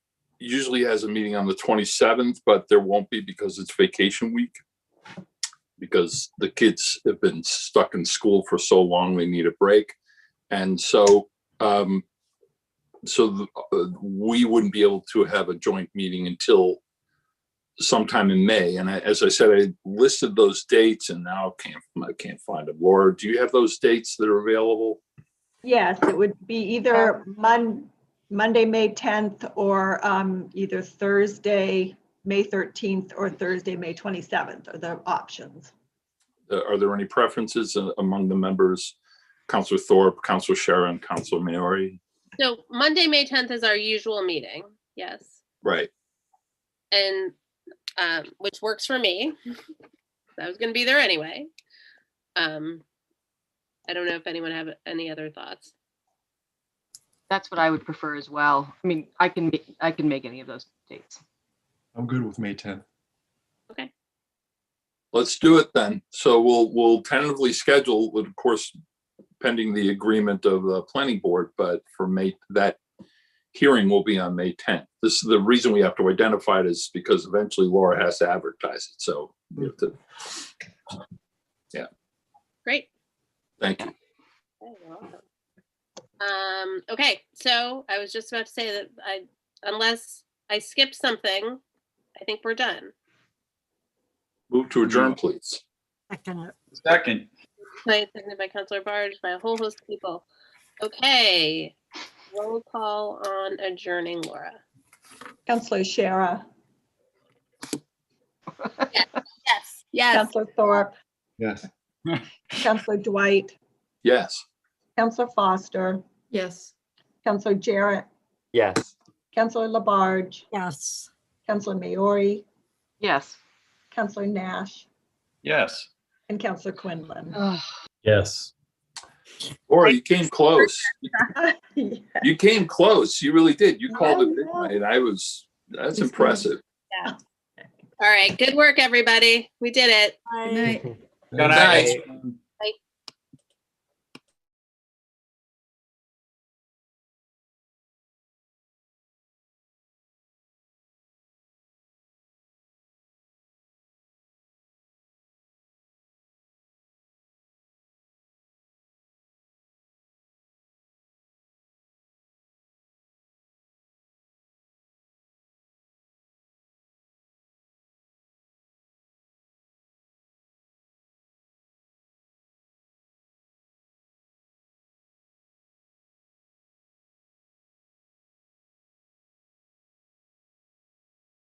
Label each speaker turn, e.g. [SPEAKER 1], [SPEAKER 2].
[SPEAKER 1] usually has a meeting on the 27th, but there won't be because it's vacation week. Because the kids have been stuck in school for so long, they need a break. And so, um, so the- uh, we wouldn't be able to have a joint meeting until sometime in May. And I, as I said, I listed those dates and now can't, I can't find them. Laura, do you have those dates that are available?
[SPEAKER 2] Yes, it would be either Mon, Monday, May 10th, or um, either Thursday, May 13th, or Thursday, May 27th are the options.
[SPEAKER 1] Uh, Are there any preferences uh, among the members? Counselor Thorpe, Counselor Sharon, Counselor Maori?
[SPEAKER 3] So Monday, May tenth is our usual meeting, yes,
[SPEAKER 1] Right.
[SPEAKER 3] and, um, which works for me. I was gonna be there anyway. Um, I don't know if anyone have any other thoughts.
[SPEAKER 4] That's what I would prefer as well. I mean, I can, ma- I can make any of those dates.
[SPEAKER 5] I'm good with May 10th.
[SPEAKER 1] Let's do it then. So we'll, we'll tentatively schedule, of course, pending the agreement of the planning board, but for May, that hearing will be on May 10th. This is the reason we have to identify it is because eventually Laura has to advertise it. So we have to,
[SPEAKER 3] Great.
[SPEAKER 1] thank you.
[SPEAKER 3] Oh, you're welcome. Um, okay, so I was just about to say that I, unless I skipped something, I think we're done.
[SPEAKER 1] Move to adjourn, please.
[SPEAKER 6] Second.
[SPEAKER 3] Right, Seconded by Counselor Barge, by a whole host of people. Okay, roll call on adjourning, Laura.
[SPEAKER 2] Counselor Shara,
[SPEAKER 3] Yes. Yes.
[SPEAKER 2] Counselor Thorpe,
[SPEAKER 5] Yes.
[SPEAKER 2] Counselor Dwight,
[SPEAKER 1] Yes.
[SPEAKER 2] Counselor Foster,
[SPEAKER 7] Yes.
[SPEAKER 2] Counselor Jarrett,
[SPEAKER 8] Yes.
[SPEAKER 2] Counselor Labarge,
[SPEAKER 7] Yes.
[SPEAKER 2] Counselor Maori,
[SPEAKER 4] Yes.
[SPEAKER 2] Counselor Nash,
[SPEAKER 6] Yes.
[SPEAKER 2] and Counselor Quinlan.
[SPEAKER 8] Yes.
[SPEAKER 1] Laura, you came close.
[SPEAKER 2] Yeah.
[SPEAKER 1] You came close. You really did. You
[SPEAKER 2] Yeah,
[SPEAKER 1] called it
[SPEAKER 2] yeah.
[SPEAKER 1] midnight. I was, that's
[SPEAKER 2] It's
[SPEAKER 1] impressive.
[SPEAKER 3] All right, good work, everybody. We did it.
[SPEAKER 7] Good night.
[SPEAKER 5] Good
[SPEAKER 1] night.
[SPEAKER 6] Nice.